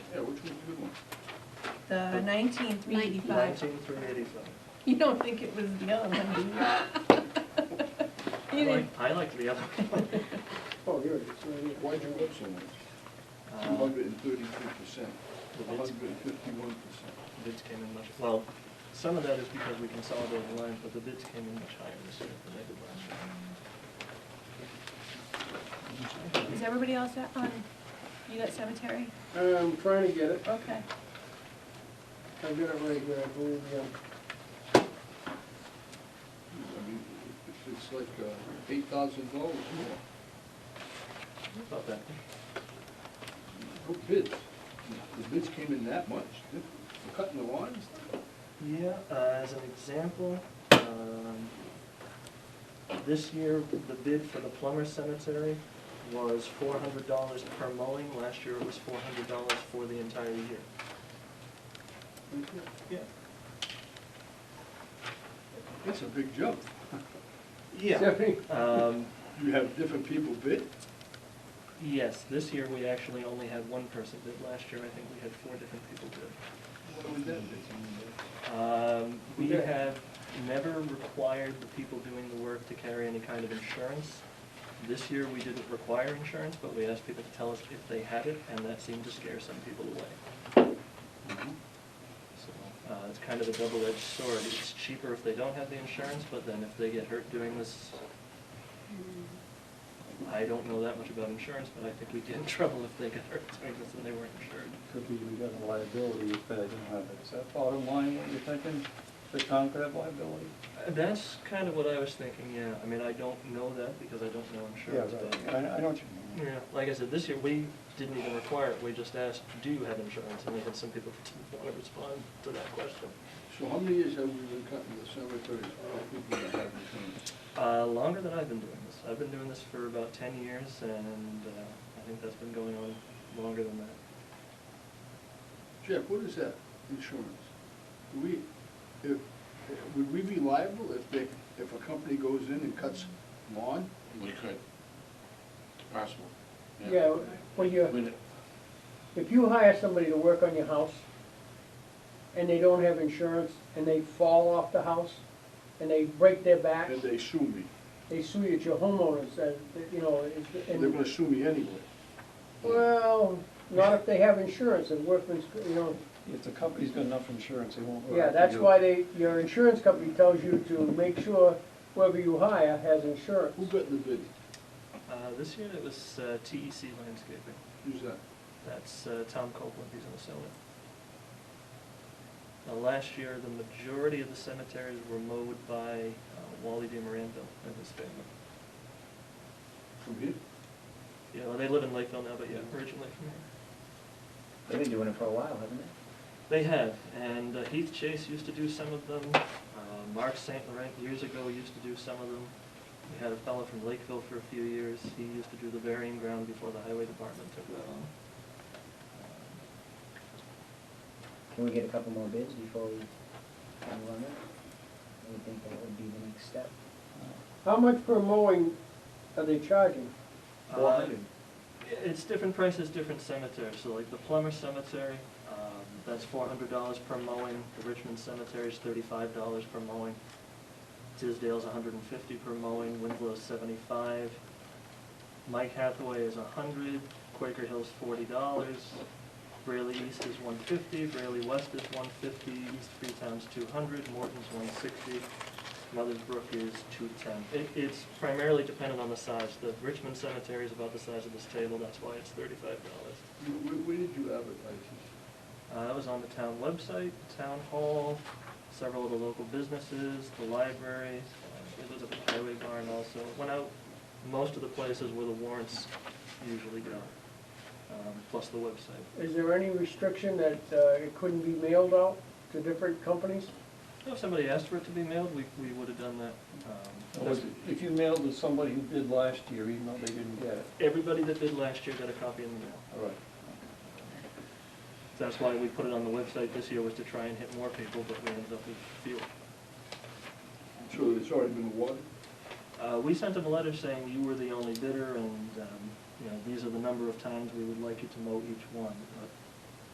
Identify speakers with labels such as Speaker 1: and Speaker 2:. Speaker 1: the nineteen three eighty-five.
Speaker 2: Nineteen three eighty-five.
Speaker 1: You don't think it was the other one, do you? You didn't,
Speaker 2: I like the other one.
Speaker 3: Oh, here it is, right here.
Speaker 4: Why'd you go so much? Two
Speaker 2: Uh,
Speaker 4: hundred and thirty-two percent,
Speaker 2: The
Speaker 4: one
Speaker 2: bids,
Speaker 4: hundred and fifty-one percent.
Speaker 2: bids came in much, well, some of that is because we consolidated lines, but the bids came in much higher this year than they did last year.
Speaker 1: is everybody else at- on, you got cemetery?
Speaker 3: I'm trying to get it,
Speaker 1: Okay.
Speaker 3: I've got it right here, I believe, yeah.
Speaker 4: I mean, it's- it's like uh, eight thousand dollars more.
Speaker 2: About that.
Speaker 4: No bids. The bids came in that much. They're Cutting the lines?
Speaker 2: Yeah, uh, as an example, um, this year, the bid for the plumber cemetery was four hundred dollars per mowing. Last year, it was four hundred dollars for the entire year. Yeah.
Speaker 4: That's a big jump.
Speaker 2: Yeah.
Speaker 3: Stephanie?
Speaker 2: Um,
Speaker 4: You have different people bid?
Speaker 2: yes, this year, we actually only had one person bid. Last year, I think we had four different people bid.
Speaker 4: What would that be?
Speaker 2: Um, We
Speaker 3: Okay.
Speaker 2: have never required the people doing the work to carry any kind of insurance. This year, we didn't require insurance, but we asked people to tell us if they had it, and that seemed to scare some people away. So uh, it's kind of a double-edged sword. It's cheaper if they don't have the insurance, but then if they get hurt doing this, I don't know that much about insurance, but I think we'd get in trouble if they got hurt doing this and they weren't insured.
Speaker 5: Could be we got a liability if they didn't have it. Is that bottom line what you're thinking? The town could have liability?
Speaker 2: Uh, That's kind of what I was thinking, yeah. I mean, I don't know that because I don't know insurance, but...
Speaker 5: Yeah, right. I, I know what you mean.
Speaker 2: Yeah, like I said, this year, we didn't even require it, we just asked, do you have insurance? And we had some people that didn't want to respond to that question.
Speaker 4: So how many years have we been cutting the cemeteries? I don't think we have this
Speaker 2: Uh, longer than I've been doing this, I've been doing this for about ten years, and, uh, I think that's been going on longer than that.
Speaker 4: one. Jeff, what is that, insurance? Do we, if, if- would we be liable if they, if a company goes in and cuts lawn?
Speaker 6: We could. Possible.
Speaker 3: Yeah, well, you,
Speaker 6: We'd-
Speaker 3: if you hire somebody to work on your house, and they don't have insurance, and they fall off the house, and they break their back,
Speaker 4: And they sue me.
Speaker 3: they sue you, it's your homeowners, and, you know, it's,
Speaker 4: They're gonna
Speaker 3: and,
Speaker 4: sue me anyway.
Speaker 3: well, not if they have insurance, and workman's, you know,
Speaker 5: If the company's got enough insurance, they won't. go
Speaker 3: Yeah,
Speaker 5: after
Speaker 3: that's
Speaker 5: you.
Speaker 3: why they, your insurance company tells you to make sure whoever you hire has insurance.
Speaker 4: Who got the bid?
Speaker 2: Uh, this year, it was, uh, TEC Landscaping,
Speaker 4: Who's that?
Speaker 2: that's, uh, Tom Copeland, he's gonna sell it. Now, last year, the majority of the cemeteries were mowed by uh, Wally D. Miranda and his family.
Speaker 4: From here?
Speaker 2: Yeah, well, they live in Lakeville now, but yeah, originally from here.
Speaker 7: They've been doing it for a while, haven't they?
Speaker 2: They have, and uh, Heath Chase used to do some of them. Uh, Mark St. Laurent years ago used to do some of them. We had a fellow from Lakeville for a few years. He used to do the burying ground before the highway department took that on.
Speaker 7: Can we get a couple more bids before we move on it? I would think that would be the next step.
Speaker 3: How much per mowing are they charging?
Speaker 2: Uh, It's different prices, different cemeteries. So like the Plummer Cemetery, um, that's four hundred dollars per mowing. The Richmond Cemetery's thirty-five dollars per mowing. Tisdale's $150 per mowing, Winslow's seventy-five. Mike Hathaway is hundred, Quaker Hill's forty dollars. Brayley East is one fifty, Brayley West is one fifty, East Freetown's two hundred, Morton's one sixty, Mother's Brook is two ten. It, it's primarily dependent on the size. The Richmond Cemetery is about the size of this table, that's why it's thirty-five dollars.
Speaker 4: Where, where did you advertise
Speaker 2: Uh, that was on the town website, town hall, several of the local businesses, the library, uh, it was at the highway barn also. It Went out most of the places where the warrants usually go, um, plus the website.
Speaker 3: Is there any restriction that uh, it couldn't be mailed out to different companies?
Speaker 2: If somebody asked for it to be mailed, we, we would have done that. Um,
Speaker 5: Or was it- If you mailed to somebody who bid last year, even though they didn't get it,
Speaker 2: Everybody that bid last year got a copy in the mail.
Speaker 5: all right.
Speaker 2: That's why we put it on the website this year was to try and hit more people, but we ended up with fewer.
Speaker 4: this? So it's already been awarded?
Speaker 2: Uh, we sent them a letter saying you were the only bidder and, um, you know, these are the number of times we would like you to mow each one. But